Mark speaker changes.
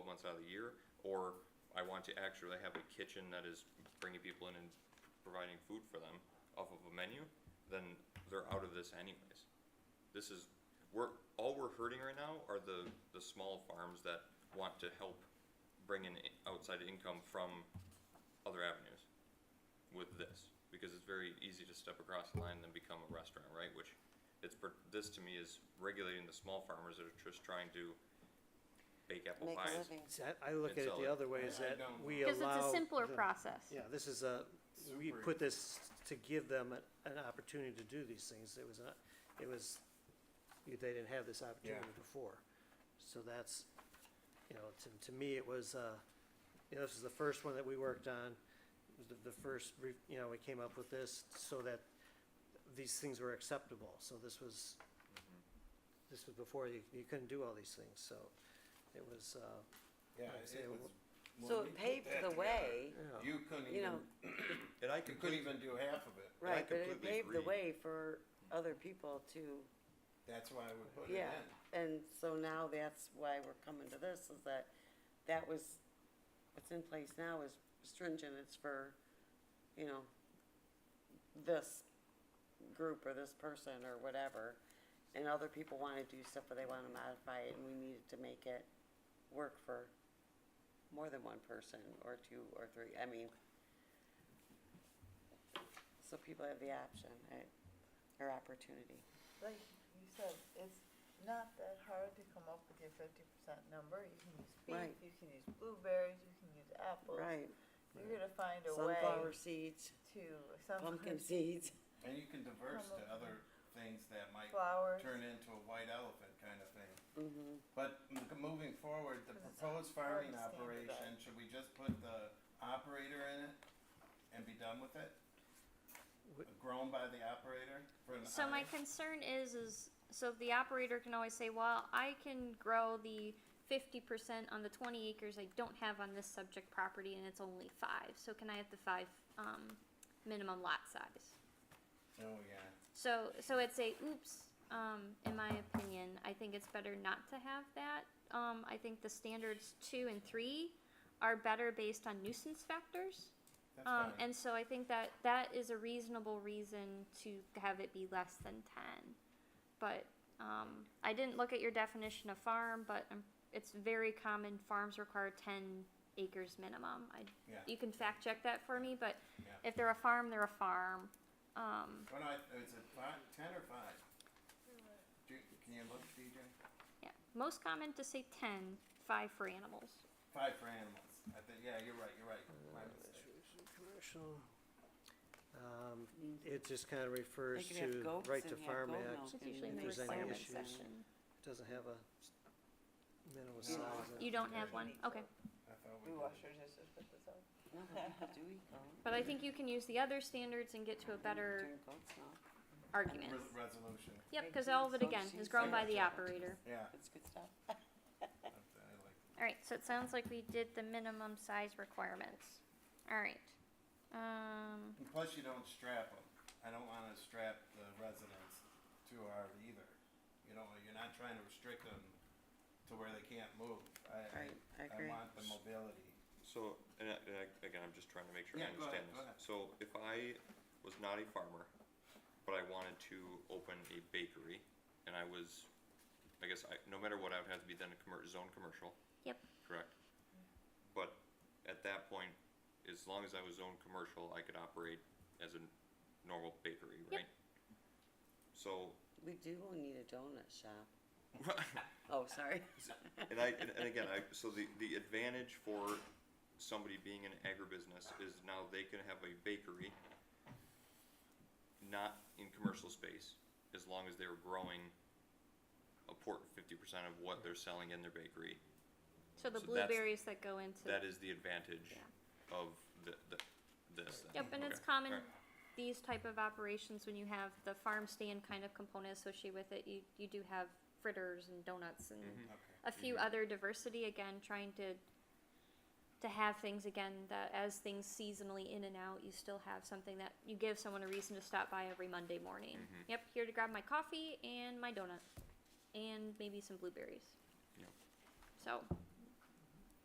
Speaker 1: year, or I want to actually have a kitchen that is bringing people in and providing food for them off of a menu, then they're out of this anyways. This is, we're, all we're hurting right now are the, the small farms that want to help bring in i- outside income from other avenues with this, because it's very easy to step across the line and then become a restaurant, right? Which, it's, per- this to me is regulating the small farmers that are just trying to bake apple
Speaker 2: Make a
Speaker 1: pies.
Speaker 2: living.
Speaker 3: See, I, I look
Speaker 1: And
Speaker 3: at it
Speaker 1: sell it.
Speaker 3: the other way, is
Speaker 4: I-
Speaker 3: that
Speaker 4: I don't
Speaker 3: we allow.
Speaker 5: Because it's a simpler
Speaker 3: the-
Speaker 5: process.
Speaker 3: Yeah, this is a, we
Speaker 4: Super.
Speaker 3: put this to give them an, an opportunity to do these things, it was not, it was, they didn't have this opportunity before. So that's, you know, to, to me, it was, uh, you know, this is the first one that we worked on, It was the, the first, re- you know, we came up with this so that these things were acceptable, so this was,
Speaker 4: Mm-hmm.
Speaker 3: this was before, you, you couldn't do all these things, so it was, uh,
Speaker 4: Yeah,
Speaker 3: I'd say
Speaker 4: it was. when
Speaker 2: So
Speaker 4: we
Speaker 2: it
Speaker 4: put
Speaker 2: paved
Speaker 4: that
Speaker 2: the
Speaker 4: together,
Speaker 2: way,
Speaker 3: Yeah.
Speaker 4: You couldn't
Speaker 2: you
Speaker 4: even,
Speaker 2: know,
Speaker 1: And I
Speaker 4: you couldn't
Speaker 1: completely,
Speaker 4: even do half of it.
Speaker 1: I
Speaker 2: right, but it
Speaker 1: completely
Speaker 2: paved the
Speaker 1: agree.
Speaker 2: way for other people to,
Speaker 4: That's why we put it
Speaker 2: yeah.
Speaker 4: in.
Speaker 2: And so now that's why we're coming to this, is that, that was, what's in place now is stringent, it's for, you know, this group or this person or whatever. And other people wanna do stuff, but they wanna modify it, and we needed to make it work for more than one person, or two, or three, I mean. So people have the option, right, or opportunity.
Speaker 6: like you said, it's not that hard to come up with your fifty percent number. You can use beef,
Speaker 2: Right.
Speaker 6: you can use blueberries, you can use apples.
Speaker 2: Right,
Speaker 6: You're gonna find a way
Speaker 2: sunflower seeds,
Speaker 6: to some
Speaker 2: pumpkin seeds,
Speaker 4: And you can diverse to
Speaker 6: Come up
Speaker 4: other things that might
Speaker 6: flowers.
Speaker 4: turn into a white elephant kind of thing.
Speaker 2: mhm,
Speaker 4: But m- moving forward, the
Speaker 6: 'Cause it's
Speaker 4: proposed
Speaker 6: hard
Speaker 4: farming
Speaker 6: to stand today.
Speaker 4: operation, should we just put the operator in it and be done with it?
Speaker 3: Wh-
Speaker 4: Grown by the operator for an
Speaker 5: So my
Speaker 4: eye?
Speaker 5: concern is, is, so the operator can always say, well, I can grow the fifty percent on the twenty acres I don't have on this subject property and it's only five, so can I have the five, um, minimum lot size?
Speaker 4: Oh, yeah.
Speaker 5: So, so it's a oops. Um, in my opinion, I think it's better not to have that. Um, I think the standards two and three are better based on nuisance factors.
Speaker 4: That's
Speaker 5: Um,
Speaker 4: fine.
Speaker 5: and so I think that that is a reasonable reason to have it be less than ten. But um, I didn't look at your definition of farm, but um, it's very common. Farms require ten acres minimum. I,
Speaker 4: Yeah.
Speaker 5: You can fact check that for me, but
Speaker 4: Yeah.
Speaker 5: if they're a farm, they're a farm. Um,
Speaker 4: Well, no, I- is it five, ten or five? Do, can you look, DJ?
Speaker 5: Yeah, most common to say 10, five for animals.
Speaker 4: Five for animals. I think, yeah, you're right, you're right. My mistake.
Speaker 3: Commercial, um, it just kinda refers
Speaker 2: They could have
Speaker 3: to
Speaker 2: goats
Speaker 3: right
Speaker 2: and
Speaker 3: to
Speaker 2: have
Speaker 3: farm
Speaker 2: goat
Speaker 3: act,
Speaker 2: milk.
Speaker 5: It's
Speaker 2: Okay,
Speaker 5: usually
Speaker 3: if
Speaker 5: in the
Speaker 3: there's any
Speaker 5: requirement
Speaker 3: issues.
Speaker 5: section.
Speaker 3: doesn't have a s- minimum
Speaker 4: Yeah.
Speaker 3: size.
Speaker 5: You don't have one, okay.
Speaker 4: I thought we
Speaker 6: We
Speaker 4: did.
Speaker 6: wash our dishes with this out.
Speaker 2: no, do we go?
Speaker 5: But I think you can use the other standards and get to a better
Speaker 2: Turn goats now.
Speaker 5: argument.
Speaker 4: Res- Resolution.
Speaker 5: Yep, because all of it again is grown by the operator.
Speaker 4: Yeah.
Speaker 2: It's good stuff.
Speaker 4: I I like
Speaker 5: Alright, so it sounds like we did the minimum size requirements. Alright. Um,
Speaker 4: And plus, you don't strap them. I don't want to strap the residents too hard either. You know, you're not trying to restrict them to where they can't move. I,
Speaker 2: Right, I
Speaker 4: I
Speaker 2: agree.
Speaker 4: want the mobility.
Speaker 1: so, and I, and I- again, I'm just trying to make sure I
Speaker 4: Yeah, go
Speaker 1: understand
Speaker 4: ahead,
Speaker 1: this.
Speaker 4: go ahead.
Speaker 1: So if I was not a farmer, but I wanted to open a bakery, and I was, I guess, I, no matter what, I would have to be then a commer- zone commercial.
Speaker 5: Yep.
Speaker 1: Correct? But at that point, as long as I was zone commercial, I could operate as a normal bakery,
Speaker 5: Yep.
Speaker 1: right? So,
Speaker 2: We do need a donut shop. Oh, sorry.
Speaker 1: And I, and, and again, I, so the, the advantage for somebody being in agribusiness is now they can have a bakery, not in commercial space, as long as they were growing a port fifty percent of what they're selling in their bakery.
Speaker 5: so the
Speaker 1: So that's-
Speaker 5: blueberries that go into.
Speaker 1: That is the advantage
Speaker 5: Yeah.
Speaker 1: of the, the, this. then.
Speaker 5: Yep, and it's
Speaker 1: Okay.
Speaker 5: common,
Speaker 1: Alright.
Speaker 5: these type of operations, when you have the farm stand kind of component associated with it, you, you do have fritters and donuts and
Speaker 1: Mm-hmm.
Speaker 4: Okay.
Speaker 5: a few other diversity, again, trying to, to have things again, that as things seasonally in and out, you still have something that you give someone a reason to stop by every Monday morning.
Speaker 1: Mhm.
Speaker 5: Yep, here to grab my coffee and my donut, and maybe some blueberries.
Speaker 1: Yep.
Speaker 5: So,